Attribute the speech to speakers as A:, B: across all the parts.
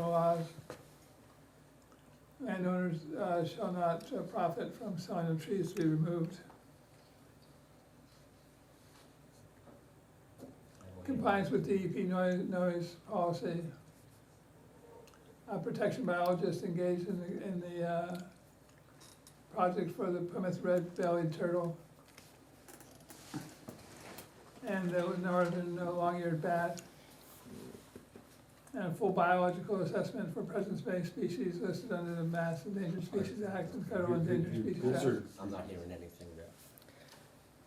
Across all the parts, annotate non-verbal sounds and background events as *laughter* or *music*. A: laws. Landowners uh, shall not uh, profit from selling of trees to be removed. Compliance with E DEP noise, noise policy. Uh, protection biologists engaged in the, in the, uh, project for the Plymouth red-bellied turtle. And the northern uh, long-eared bat. And a full biological assessment for presence-based species listed under the Mass Endangered Species Act and Federal Endangered Species
B: Those
A: Act.
B: are,
C: I'm not hearing anything there.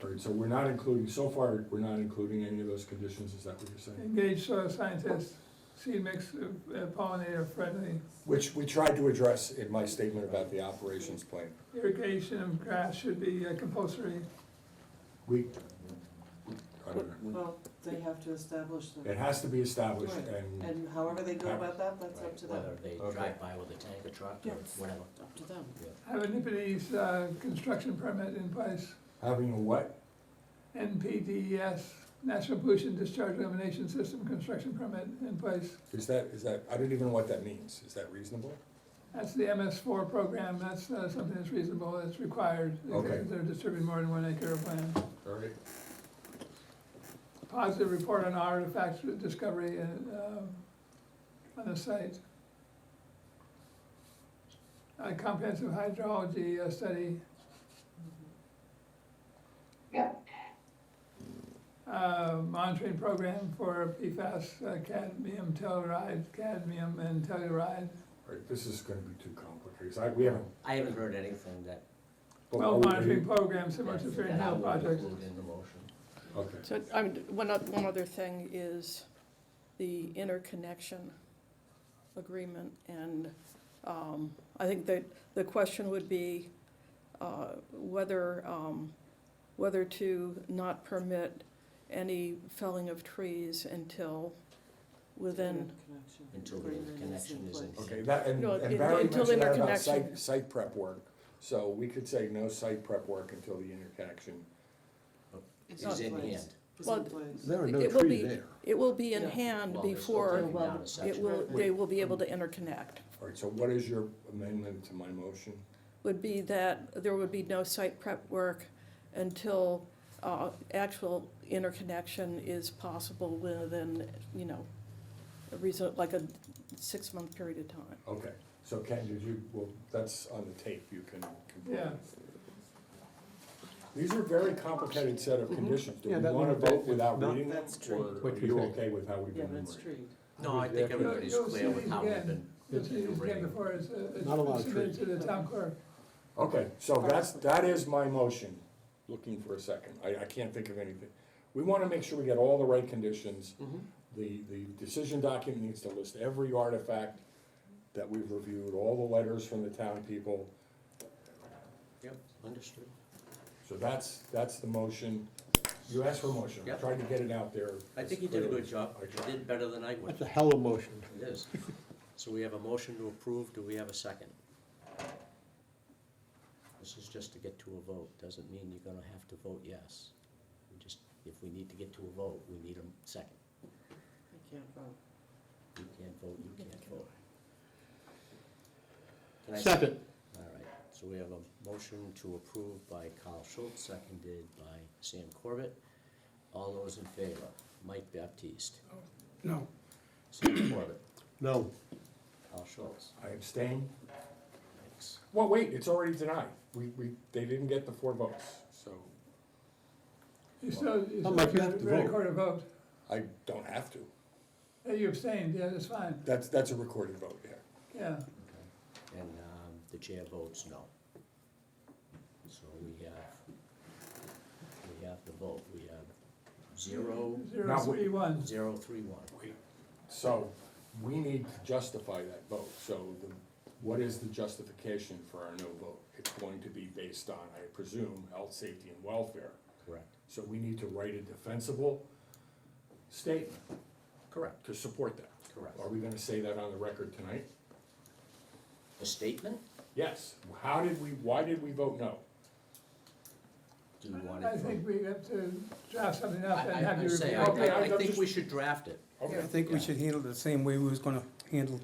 B: all right, so we're not including, so far, we're not including any of those conditions, is that what you're saying?
A: Engage soil scientists, seed mix uh, pollinator friendly,
B: Which we tried to address in my statement about the operations plan.
A: irrigation of grass should be uh, compulsory.
B: We, I don't know.
D: Well, they have to establish
B: It
D: them,
B: has to be established and,
D: and however they go about that, that's up
C: Right,
D: to them,
C: Whether they
B: Okay.
C: drive by with a tank, a truck, or
D: Yes.
C: whatever.
D: up to them.
A: Have a Nipponese, uh construction permit in place,
B: having a what?
A: NPDES, National E Pollution Discharge Elimination System construction permit in place.
B: Is that, is that, I don't even know what that means, is that reasonable?
A: That's the MS four program, that's uh, something that's reasonable, that's required,
B: Okay.
A: if they're distributing more than one acre of land.
B: All right,
A: Positive report on artifacts discovery and, um, on the site. A comprehensive hydrology uh, study. Uh, monitoring program for PFAS, uh, cadmium telluride, cadmium and telluride.
B: all right, this is gonna be too complicated, 'cause I, we haven't.
C: I haven't heard anything that.
B: but
A: Well,
B: are we-
A: monitoring program similar to
C: that-
A: Fair
C: that I
A: Hill
C: would
A: project.
C: include In the motion.
B: Okay,
E: So, I mean, one, oth- one other thing is the interconnection agreement, and, um, I think that the question would be, uh, whether, um, whether to not permit any felling of trees until within,
D: Interconnection.
C: Until the
D: Agreement
C: connection is in-
D: place.
B: okay, that, and
E: No,
B: and
E: it-
B: Barry
E: until
B: mentioned that about
E: interconnection.
B: site, site prep work. So we could say no site prep work until the interconnection.
D: It's
C: Is in
D: place.
C: hand.
D: It's
E: Well,
D: in place.
F: There are no
E: It will
F: trees
E: be-
F: there.
E: it will be in
D: Yeah.
E: hand
C: Well, they're still
E: before
C: taking down a
E: it
C: section.
E: will, they will be able to interconnect.
B: All right, so what is your amendment to my motion?
E: would be that there would be no site prep work until uh, actual interconnection is possible within, you know, a reason, like a six-month period of time.
B: Okay, so Ken, did you, well, that's on the tape, you can. can-
A: Yeah.
B: These are very complicated set of conditions. Do
F: Mm-hmm. Yeah,
B: we
F: that
B: wanna
F: one- that-
B: vote without
F: that-
B: reading them?
D: That's true.
B: Or are
F: What you
B: you
F: think?
B: okay with how we've
D: Yeah,
B: been
D: that's
B: numbered?
D: tree.
C: No, I think everybody's
A: You'll- you'll
C: clear
A: see
C: with
A: these
C: how we've
A: again.
C: been.
A: You'll see these again before it's, uh,
F: Not a lot
A: it's
F: of
A: submitted
F: trees.
A: to the town clerk.
B: Okay, so that's, that is my motion. Looking for a second. I, I can't think of anything. We wanna make sure we get all the right conditions.
C: Mm-hmm.
B: The, the decision document needs to list every artifact that we've reviewed, all the letters from the town people.
C: Yep, understood.
B: So that's, that's the motion. You asked for a motion, I
C: Yep.
B: tried to get it out there.
C: I
B: as
C: think you did a
B: clearly
C: good job.
B: as I
C: You
B: tried.
C: did better than I would.
F: That's a hell of a motion.
C: It is. *laughs* So we have a motion to approve, do we have a second? This is just to get to a vote, doesn't mean you're gonna have to vote yes. We Just, if we need to get to a vote, we need a second.
D: I can't vote.
C: You can't vote, you can't vote. Can I-
F: Second,
C: All right, so we have a motion to approve by Carl Schultz, seconded by Sam Corbett. All those in favor, Mike Baptiste,
F: no,
C: Sam Corbett,
F: no,
C: Carl Schultz,
B: I abstain.
C: thanks.
B: Well, wait, it's already denied. We, we, they didn't get the four votes, so
A: You still, you
F: Oh, Mike, you
A: still
F: have to vote.
A: record a vote.
B: I don't have to.
A: Yeah, You abstained, yeah, that's fine,
B: That's, that's a recorded vote, yeah.
A: yeah.
C: Okay. And um, the chair votes no. So we have, we have the vote, we have zero,
A: Zero
B: Now,
A: three one.
C: zero, three, one.
B: So we need to justify that vote. So the, what is the justification for our no vote? It's going to be based on, I presume, health, safety, and welfare.
C: Correct.
B: So we need to write a defensible statement
C: Correct.
B: to support that.
C: Correct.
B: Are we gonna say that on the record tonight?
C: The statement,
B: Yes. How did we, why did we vote no?
C: do you want
A: I
C: it
A: think
C: from?
A: we have to draft something up
C: I,
A: and
C: I
A: have
C: I
A: you
C: say,
A: review.
C: I,
B: Okay,
C: I
B: I-
C: I
B: I'm
C: think
B: just-
C: we should draft it.
B: Okay.
G: I think we should handle it the same way we was gonna handle